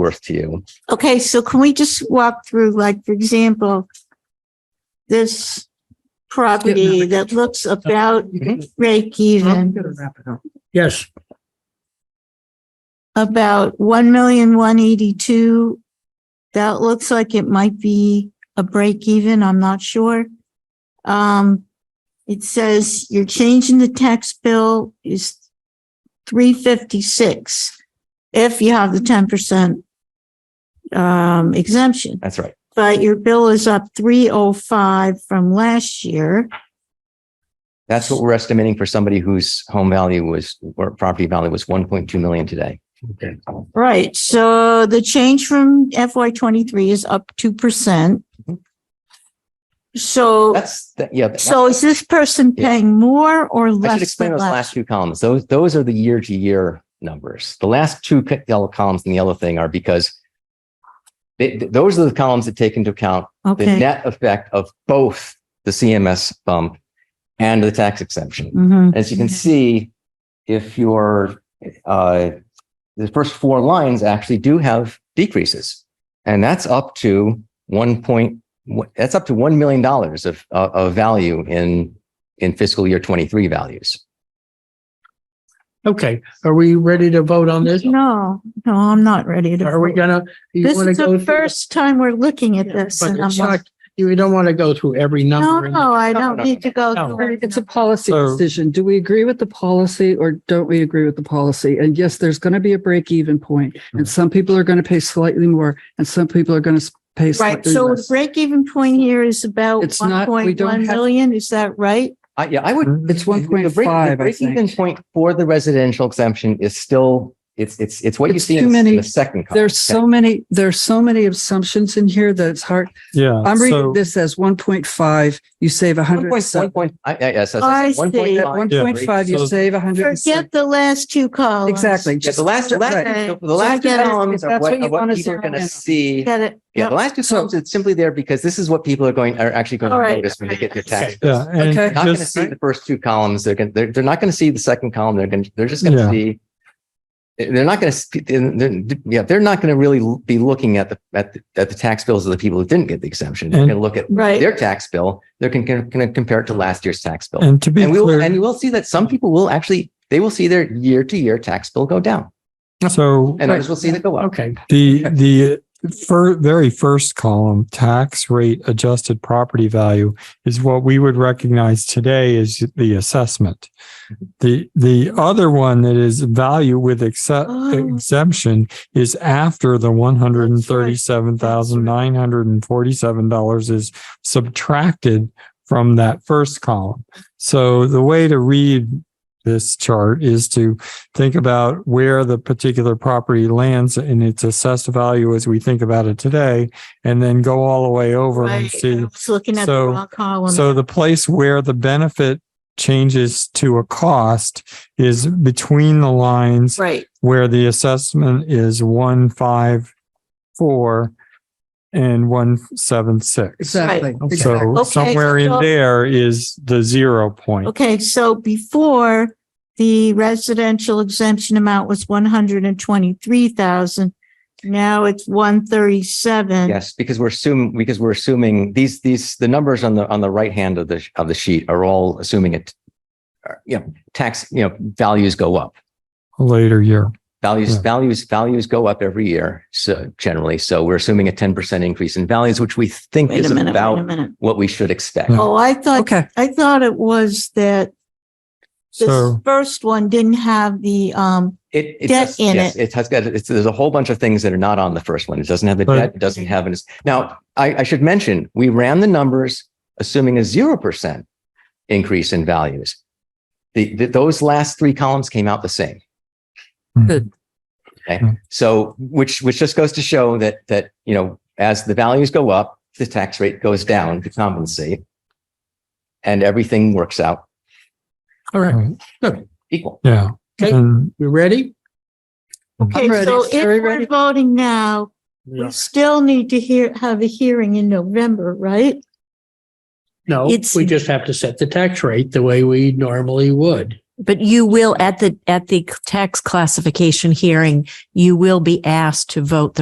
worth to you. Okay, so can we just walk through, like, for example, this property that looks about break Mm-hmm. even, Yes, about one million, one eighty-two. That looks like it might be a break even, I'm not sure. Um, it says your change in the tax bill is three fifty-six if you have the ten percent um, exemption. That's right. but your bill is up three oh five from last year. That's what we're estimating for somebody whose home value was, or property value was 1.2 million today. okay. Right, so the change from FY twenty-three is up two percent. Mhm. So, That's, that- yeah. that- so is this person Yeah. paying more or I should less explain than those last? last two columns. Those, those are the year to year numbers. The last two co- yellow columns in the yellow thing are because they, th- those are the columns that take into account the Okay. net effect of both the CMS bump and the tax exemption. Mhm. As you can Okay. see, if your, uh, the first four lines actually do have decreases. And that's up to one point, that's up to $1 million of, of of value in, in fiscal year 23 values. Okay, are we ready to vote on this? No, no, I'm not ready to. Are we vote. gonna? you This wanna is go the through- first time we're looking at But this. and I'm it's like, not, you don't want to go through every No, number. in no, I No, don't no, need to go. no. through it. It's a policy So- decision. Do we agree with the policy or don't we agree with the policy? And yes, there's going to be a break even point Right. Mm-hmm. and some people are going to pay slightly more and some people are going to pay Right, slightly so the less. break-even point here is about It's one not- we point don't one have- million, is that right? I, yeah, I would. It's the break- 1.5, Mm-hmm. I The break-even think. point for the residential exemption is still, it's, it's, it's what you It's see too in in many- the second column. There's so many, there's so many assumptions in here that it's hard. Yeah. I'm reading Uh, so- this as 1.5, you save a One hundred. point, one point, I, I, yes. that's- I that's see. 1.5. One point five, so- you save a hundred. and six. Forget the last two columns. Exactly. Yeah, the last, the last, Right. the- the last two That's columns are what what, you are what wanna people are zero gonna in on. see. Get it? Yeah, the last two So- columns, it's simply there because this is what people are going, are actually going All to right. notice when they get their Okay. tax. Yeah. and Okay. They're Not gonna just- see the first two columns. They're gonna, they're, they're not gonna see the second column. They're gonna, they're just gonna Yeah. see. They're not gonna, see- they're- they're- yeah, they're not gonna really be looking at the, at, the- at the tax bills of the people who didn't get the exemption. They're And- gonna look at Right, their tax bill. They're gonna, gonna compare it to last year's tax bill. And to be And we will, and clear, you will see that some people will actually, they will see their year to year tax bill go down so and others will see that go up. Okay, the, the fir- very first column, tax rate adjusted property value is what we would recognize today as the assessment. The, the other one that is value with exce- Oh. exemption is after the one hundred and thirty-seven thousand nine hundred and forty-seven dollars is subtracted from that first column. So the way to read this chart is to think about where the particular property lands in its assessed value as we think about it today, and then go all the way over and right. I see. was looking at the So- wrong column. So the place where the benefit changes to a cost is between the lines Right, where the assessment is one five four and one seven six. Exactly. exactly. So somewhere in so- there is the zero point. okay, so before the residential exemption amount was one hundred and twenty-three thousand. Now it's one thirty-seven. Yes, because we're assuming, because we're assuming these, these, the numbers on the, on the right hand of the, of the sheet are all assuming it. are, You know, tax, you know, values go up, Later year. values, Yeah. values, values go up every year. So generally, so we're assuming a ten percent increase in values, which we think Wait is a minute, wait a about minute. what we should expect. Yeah. Oh, I thought, Okay, I thought it was that this So, first one didn't have the, um, It, it Debt does, in yes, it. it has got, it's, there's a whole bunch of things that are not on the first one. It doesn't have the But- debt, it doesn't have, an- now, I, I should mention, we ran the numbers assuming a zero percent increase in values. The, the, those last three columns came out the same. Good. Okay, Hmm. so, which, which just goes to show that, that, you know, as the values go up, the tax rate goes down to compensate. And everything works out all right, equal. yeah. Okay. And we ready? okay, ready. so if Very we're ready. voting now, we still need to hear, have a hearing in November, right? No, It's- we just have to set the tax rate the way we normally would. But you will, at the, at the tax classification hearing, you will be asked to vote the